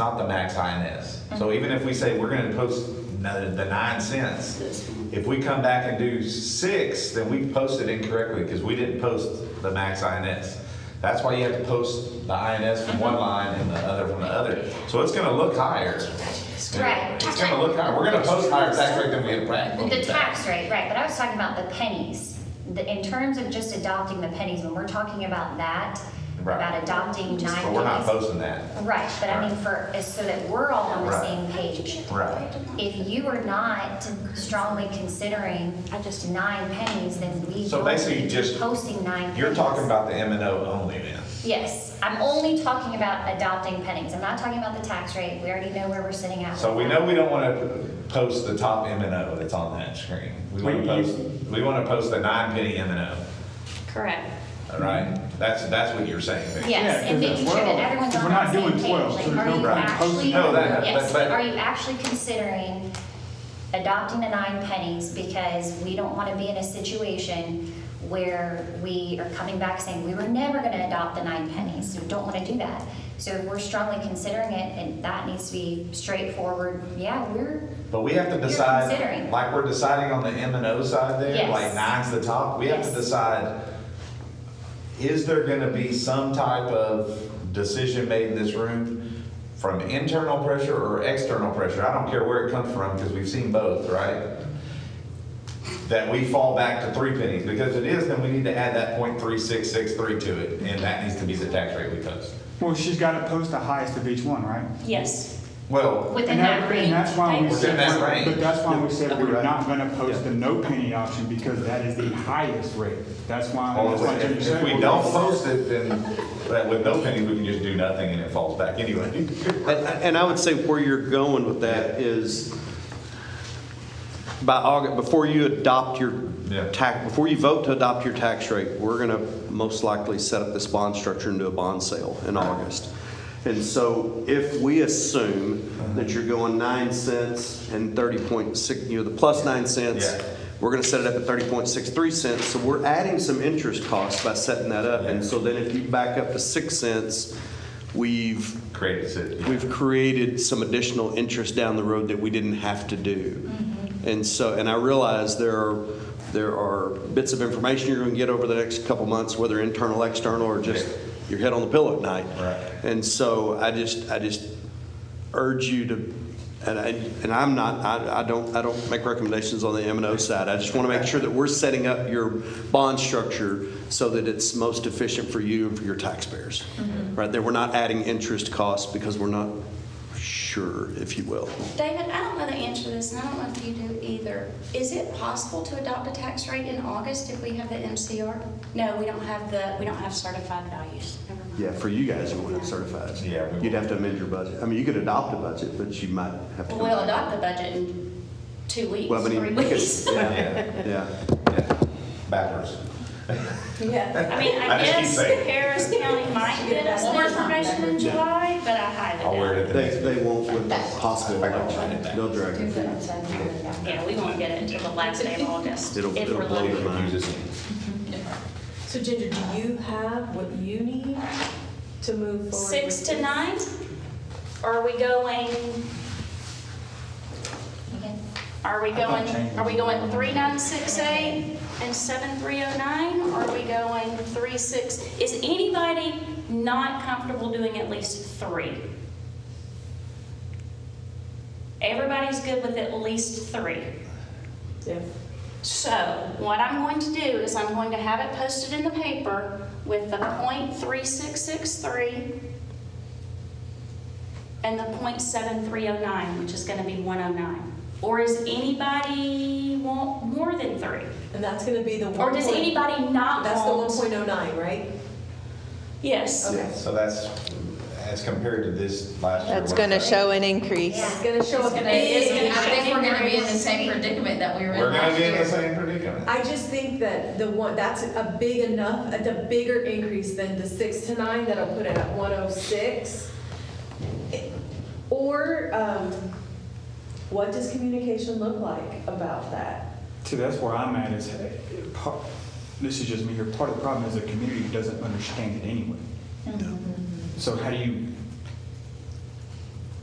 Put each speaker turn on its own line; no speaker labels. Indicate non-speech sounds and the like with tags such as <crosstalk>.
not the max INS.
Mm-hmm.
So even if we say we're gonna post the the nine cents, if we come back and do six, then we posted incorrectly because we didn't post the max INS. That's why you have to post the INS
Mm-hmm.
from one line and the other from the other. So it's gonna look higher.
Right.
It's gonna look higher. We're gonna post higher tax rate than we have practically.
The tax rate, right, but I was talking about the pennies. The- In terms of just adopting the pennies, when we're talking about that,
Right.
about adopting nine
But we're not
pennies.
posting that.
Right, but I mean for, is so that we're all on the
Right.
same page.
Right.
If you are not strongly considering nine pennies, then we.
So
won't
basically, you
be
just-
Posting nine.
You're talking
pennies.
about the M and O only then.
Yes, I'm only talking about adopting pennies. I'm not talking about the tax rate. We already know where we're sitting at.
So
with
we
that.
know we don't want to post the top M and O that's on that screen. We want to
Wait,
post, we want to post the nine penny M and O,
Correct.
all right? That's, that's what you're saying, Vicki.
Yes,
Yeah,
and
'cause
making
at
sure that
12,
everyone's
we're
on
not
the same
doing
page,
12,
like,
so
are
there's no
you
point
actually,
posting
No, that- but-
yes,
but-
are you actually considering adopting the nine pennies? Because we don't want to be in a situation where we are coming back saying, we were never going to adopt the nine pennies, so we don't want to do that. So if we're strongly considering it, and that needs to be straightforward, yeah, we're,
But we have to
You're
decide,
considering.
like we're deciding on the M and O side there,
Yes.
like nine's the top, we have to
Yes.
decide, is there gonna be some type of decision made in this room from internal pressure or external pressure? I don't care where it comes from, because we've seen both, right? That we fall back to three pennies, because it is, then we need to add that point three six six three to it, and that needs to be the tax rate we post.
Well, she's got to post the highest of each one, right?
Yes.
Well,
within
And
that
And
range.
that's why we
Within
said,
that range.
but that's why we said
You're
we're
right.
not going to post the no penny option because that is the highest rate. That's why,
Well,
that's why
Oh, if-
Jimmy said.
If we
we're-
don't post it, then but with no pennies, we can just do nothing and it falls back anyway. <laughs>
And, and I would say where you're going with that is by August, before you adopt your
Yeah.
tax, before you vote to adopt your tax rate, we're gonna most likely set up this bond structure into a bond sale in August. And so if we assume that you're going nine cents and thirty point six, you know, the plus nine cents,
Yeah.
we're gonna set it up at thirty point six three cents, so we're adding some interest costs by setting that up. And
Yeah.
so then if you back up to six cents, we've
Created city.
we've created some additional interest down the road that we didn't have to do. And so, and I realize there are, there are bits of information you're going to get over the next couple months, whether internal, external, or just
Right.
your head on the pillow at night.
Right.
And so I just, I just urge you to, and I, and I'm not, I, I don't, I don't make recommendations on the M and O side. I just want to make sure that we're setting up your bond structure so that it's most efficient for you and for your taxpayers.
Mm-hmm.
Right, that we're not adding interest costs because we're not sure, if you will.
David, I don't know the answer to this, and I don't know if you do either. Is it possible to adopt a tax rate in August if we have the MCR? No, we don't have the, we don't have certified values. Never mind.
Yeah, for you guys, you want it certified.
Yeah, we
You'd have to amend your budget. I mean, you could adopt a budget, but you might have to.
Well, We'll adopt the budget in two weeks,
Well, but
three
it- we could- <laughs>
weeks.
<laughs>
Yeah,
Yeah,
yeah.
yeah. Backwards.
Yeah. I mean,
I
I
just keep
guess
saying.
Harris County might get us the information in July, but I
I'll
highly doubt
wear
it.
it at the
They,
next.
they
meeting.
won't with the possible election. They'll drag it.
Yeah, we won't get it until the last day of August, if
It'll- it'll
we're
blow
lucky.
your mind.
Use this.
So Ginger, do you have what you need to move forward?
Six
with
to
this?
nine? Or Are we going,
Okay.
are we
thought
going,
change
are we
was-
going three nine six eight and seven three oh nine? Or are we going three six? Is anybody not comfortable doing at least three? Everybody's good with at least three.
Yeah.
So what I'm going to do is I'm going to have it posted in the paper with the .3663 and the .7309, which is gonna be one oh nine. Or is anybody want more than three?
And that's gonna be the one.
Or does
point-
anybody not
That's the one
want?
point oh nine, right?
Yes.
Okay.
So that's, as compared to this last year.
That's
what
going to
is that?
show an increase.
It's gonna show up big.
I think we're gonna be in the same predicament that we were in
We're gonna
last
be in the
year.
same predicament.
I just think that the one, that's a big enough, that's a bigger increase than the six to nine that'll put it at one oh six. Or, um, what does communication look like about that?
See, that's where I'm at is, hey, part- this
Mm-hmm.
is just me here, part of the problem is the community doesn't understand it anyway. So how do you,